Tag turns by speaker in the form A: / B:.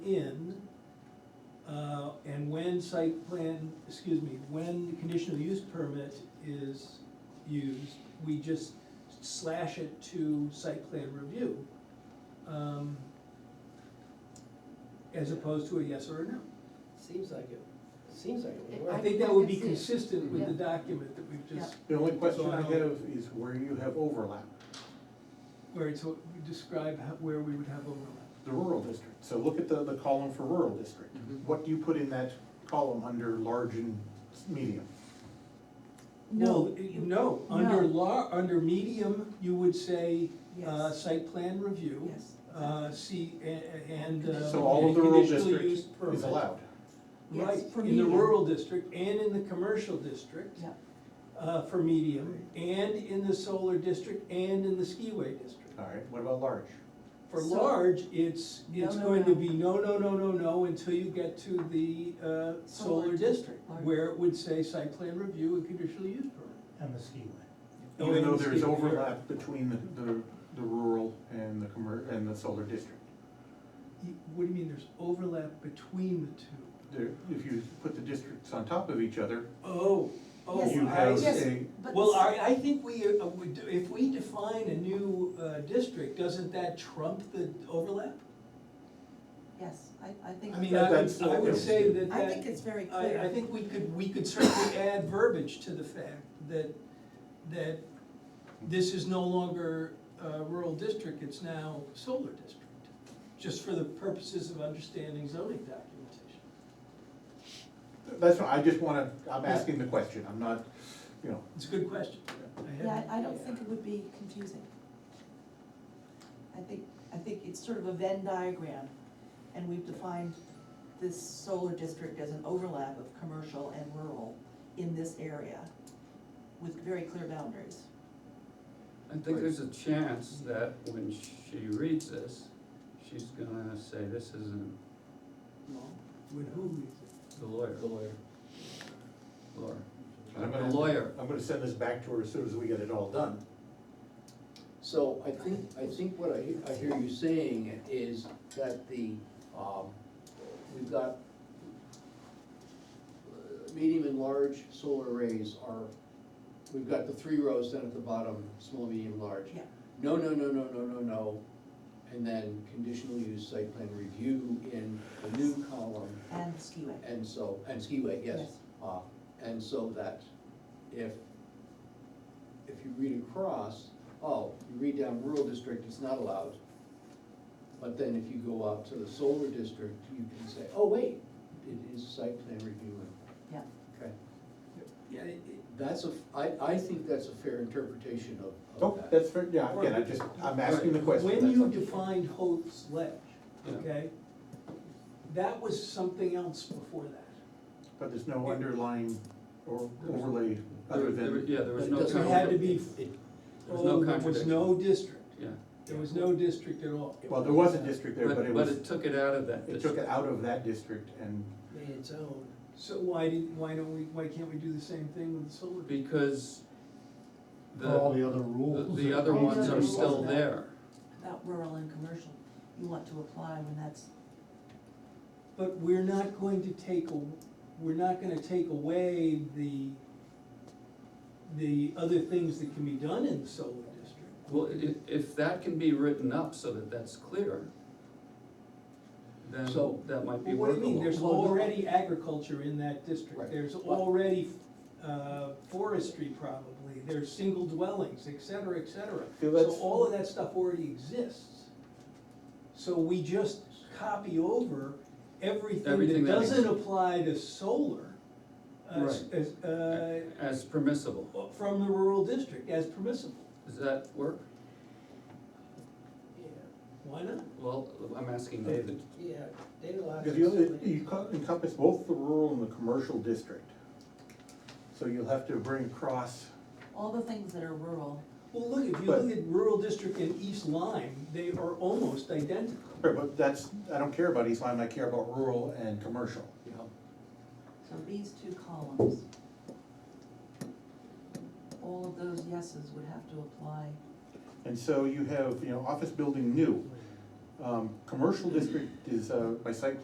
A: in, uh, and when site plan, excuse me, when the conditional use permit is used, we just slash it to site plan review. um, As opposed to a yes or a no.
B: Seems like it, seems like it would work.
A: I
C: I
A: think that
C: think
A: would
C: I
A: be
C: can see it.
A: consistent with the
C: Yeah.
A: document that we've just,
D: The only question I
A: So I
D: have is where you have overlap,
A: where it's, describe how- where we would have overlap.
D: the rural district. So look at the, the column for rural district.
B: Mhm.
D: What do you put in that column under large and medium?
A: Well,
C: No.
A: it-
C: you-
A: No, under
C: no.
A: law, under medium, you would say, uh,
C: Yes.
A: site plan review.
C: Yes.
A: Uh, see, a- a- and. uh,
D: So all of the
A: and
D: rural
A: conditional
D: district
A: use
D: is
A: permit.
D: allowed.
C: Yes,
A: Right,
C: for
A: in the
C: medium.
A: rural district and in the commercial district,
C: Yeah,
A: uh, for medium, and in the solar district and in the skiway district.
D: All right, what about large?
A: For
C: So-
A: large, it's,
C: No,
A: it's
C: no,
A: going to
C: no.
A: be no, no, no, no, no, until you get to the, uh, solar
C: Solar
A: district,
C: district, large.
A: where it would say site plan review and conditional use permit.
E: and the skiway.
A: Oh,
D: Even
A: and
D: though
A: the
D: there is
A: skiway, yeah.
D: overlap between the, the, the rural and the commer, and the solar district.
A: You- What do you mean, there's overlap between the two?
D: There, if you put the districts on top of each other,
A: Oh, oh,
C: Yes,
D: you
A: I
D: have
C: yes.
A: see.
D: a,
C: but
A: Well,
C: s-
A: I, I think we, uh, we do- if we define a new uh, district, doesn't that trump the overlap?
C: Yes, I, I think.
A: I mean, I would,
D: That's-
A: I would say that
C: I
A: that-
C: think it's very clear.
A: I, I think we could, we could certainly add verbiage to the fact that, that this is no longer a rural district, it's now solar district, just for the purposes of understanding zoning documentation.
D: that's, why I just wanna, I'm asking the question, I'm not, you know.
A: It's a good question. I
C: Yeah,
A: haven't-
C: I, I don't think it would be confusing. I think, I think it's sort of a Venn diagram, and we've defined this solar district as an overlap of commercial and rural in this area with very clear boundaries.
F: I think there's a chance that when she reads this, she's gonna say, this isn't
A: When who reads it?
F: the lawyer,
B: The lawyer.
F: Laura.
D: I'm
F: I'm a
D: gonna-
F: lawyer.
D: I'm gonna send this back to her as soon as we get it all done.
B: So I think, I think what I, he- I hear you saying is that the, um, we've got uh, medium and large solar arrays are, we've got the three rows down at the bottom, small, medium, large.
C: Yeah.
B: No, no, no, no, no, no, no, and then conditional use site plan review in the new column.
C: And skiway.
B: And so, and skiway, yes.
C: Yes.
B: Uh, And so that if, if you read across, oh, you read down rural district, it's not allowed. But then if you go out to the solar district, you can say, oh, wait, it is site plan review.
C: Yeah,
B: Okay,
A: Yeah, it- it-
B: that's a, I, I think that's a fair interpretation of,
D: Oh,
B: of that.
D: that's fair, yeah, again, I just, I'm asking the question.
A: When
D: that's
A: you
D: all.
A: defined Holt's Ledge,
F: Yeah.
A: okay, that was something else before that.
D: But there's no underlying or overlay
F: There-
D: other
F: there-
D: than,
F: Yeah, there was
B: But it
F: no.
B: doesn't
A: It had to
F: conflict.
A: be,
B: It-
F: There's no
A: oh, there was
F: contradiction.
A: no district,
F: Yeah,
A: there was no district at all.
D: well, there was a district there, but it
F: but, but
D: was,
F: it took it out of that
D: it took
F: district.
D: it out of that district and,
B: Made its own.
A: So why did, why don't we, why can't we do the same thing with the solar?
F: Because
E: For all
F: the,
E: the other
F: the,
E: rules.
F: the other
C: All the
F: ones
C: other
F: are
C: rules
F: still
C: now.
F: there.
C: about rural and commercial, you want to apply when that's,
A: But we're not going to take, a- we're not gonna take away the, the other things that can be done in the solar district.
F: Well, i- if that can be written up so that that's clear, then
B: So-
F: that might be
A: Well, What do you mean, there's
F: workable.
B: Well, no.
A: already agriculture in that district,
B: Right.
A: there's
B: But-
A: already uh, forestry probably, there's single dwellings, et cetera, et cetera.
D: Yeah,
A: So
D: that's-
A: all of that stuff already exists. So we just copy over everything
F: Everything
A: that
F: that
A: doesn't
F: exists.
A: apply to solar as,
F: Right.
A: as, uh,
F: As permissible,
A: from the rural district as permissible,
F: does that work?
A: why not?
F: Well, I'm asking David.
G: Yeah, they allow.
D: because you, you co- encompass both the rural and the commercial district. So you'll have to bring across,
C: all the things that are rural,
A: Well, look, if you
D: But-
A: look at rural district in East Lyme, they are almost identical.
D: Right, but that's, I don't care about East Lyme, I care about rural and commercial.
B: Yeah.
C: so these two columns. All of those yeses would have to apply,
D: And so you have, you know, office building new, um, commercial district is, uh, by site